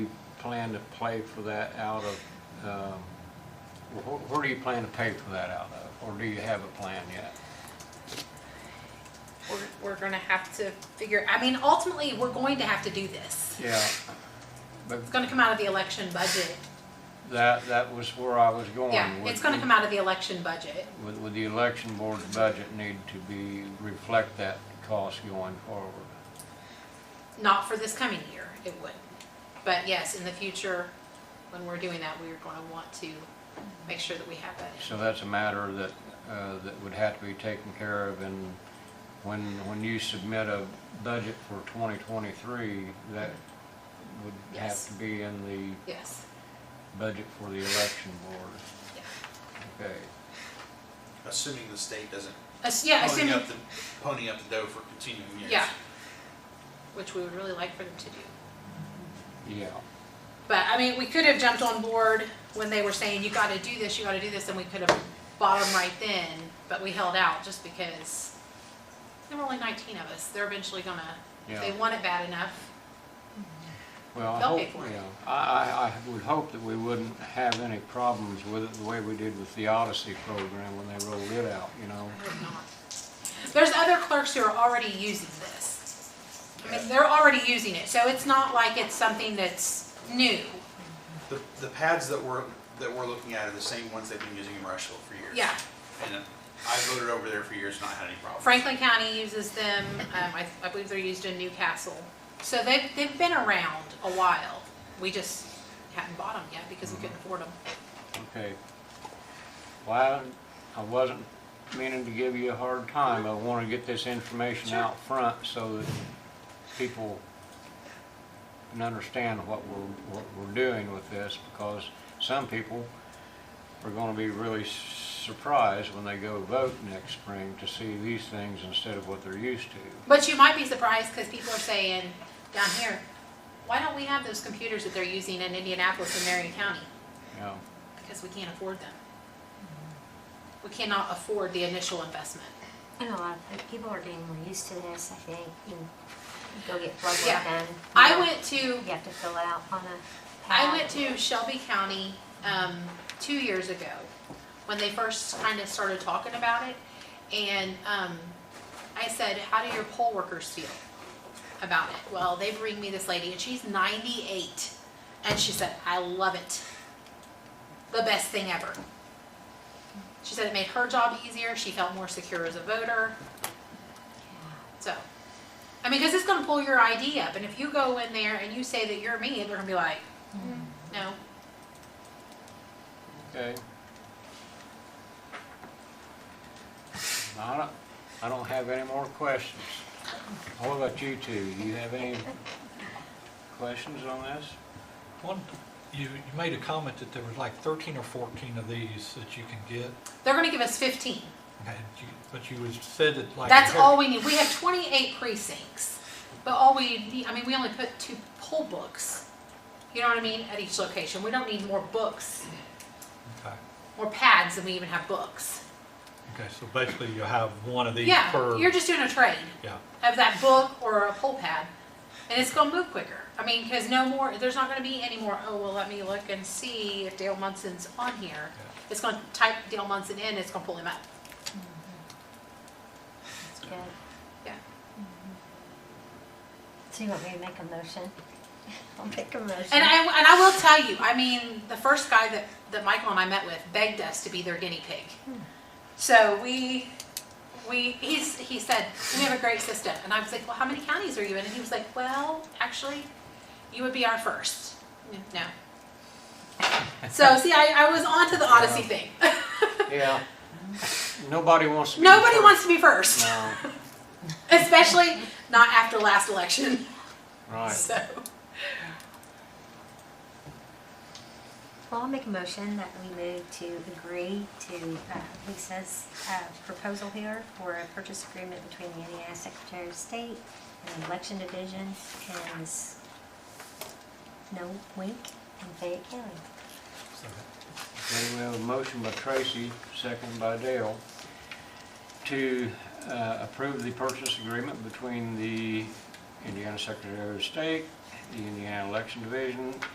plan to pay for that out of, um, wh- where do you plan to pay for that out of? Or do you have a plan yet? We're, we're gonna have to figure, I mean, ultimately, we're going to have to do this. Yeah. But It's gonna come out of the election budget. that, that was where I was going. Yeah, with it's gonna the- come out of the election budget. Would, would the election board's budget need to be, reflect that cost going forward? Not for this coming year, it would. But yes, in the future, when we're doing that, we're gonna want to make sure that we have that. So that's a matter that, uh, that would have to be taken care of and when, when you submit a budget for 2023, that would have Yes. to be in the Yes, budget for the election board. yeah. Okay, Assuming the state doesn't Ass- Oh, Yeah, pony assuming, up the, pony up the dough for continuing years. yeah. Which we would really like for them to do. yeah. But I mean, we could have jumped on board when they were saying, you gotta do this, you gotta do this, and we could have bought them right then, but we held out just because there were only nineteen of us. They're eventually gonna, if they Yeah. want it bad enough. Well, I They'll hope, pay for it. yeah, I, I, I would hope that we wouldn't have any problems with it the way we did with the Odyssey program when they rolled it out, you know? I hope not. There's other clerks who are already using this. I mean, they're already using it, so it's not like it's something that's new. The, the pads that we're, that we're looking at are the same ones they've been using in Rushville for years. Yeah, And I voted over there for years, not had any problems. Franklin County uses them, um, I, I believe they're used in Newcastle. So they've, they've been around a while. We just hadn't bought them yet because we couldn't afford them. Okay. Well, I I wasn't meaning to give you a hard time, I want to get this information Sure. out front so that people can understand what we're, what we're doing with this, because some people are gonna be really surprised when they go vote next spring to see these things instead of what they're used to. But you might be surprised because people are saying down here, why don't we have those computers that they're using in Indianapolis and Marion County? You know, Because we can't afford them. We cannot afford the initial investment. And a lot of people are getting more used to this, I think. You go get blood work Yeah. done. I went to You have to fill out on a pad. I went to Shelby County um, two years ago when they first kind of started talking about it. And um, I said, How do your poll workers feel about it? Well, they bring me this lady, and she's 98. And she said, I love it. The best thing ever. She said it made her job easier. She felt more secure as a voter. So, I mean, because it's going to pull your ID up. And if you go in there and you say that you're me, they're going to be like, no. Okay? I don't, I don't have any more questions. What about you two? Do you have any questions on this? One, you, you made a comment that there was like 13 or 14 of these that you can get, They're gonna give us fifteen. and you- but you was- said that like. That's all we need. We have twenty-eight precincts, but all we need, I mean, we only put two poll books. You know what I mean, at each location. We don't need more books, Okay, more pads than we even have books. okay, so basically you have one of these per. Yeah, you're just doing a trade Yeah, of that book or a poll pad, and it's gonna move quicker. I mean, cause no more, there's not gonna be any more, oh, well, let me look and see if Dale Munson's on here. yeah. It's gonna type Dale Munson in, it's gonna pull him up. That's good. Mm-hmm. Yeah. So you want me to make a motion? I'll make a motion. And I, and I will tell you, I mean, the first guy that, that Michael and I met with begged us to be their guinea pig. So we, we, he's, he said, we have a great system. And I was like, well, how many counties are you in? And he was like, well, actually, you would be our first. No. So, see, I, I was onto the Odyssey thing. Yeah. Nobody wants to be. Nobody first. wants to be first, No, especially not after last election. right. So, Well, I'll make a motion that we move to agree to uh, Lisa's uh, proposal here for a purchase agreement between the Indiana Secretary of State and the Election Division and s- no wink in Fayette County. so that- Okay, we have a motion by Tracy, second by Dale, to uh, approve the purchase agreement between the Indiana Secretary of State, the Indiana Election Division,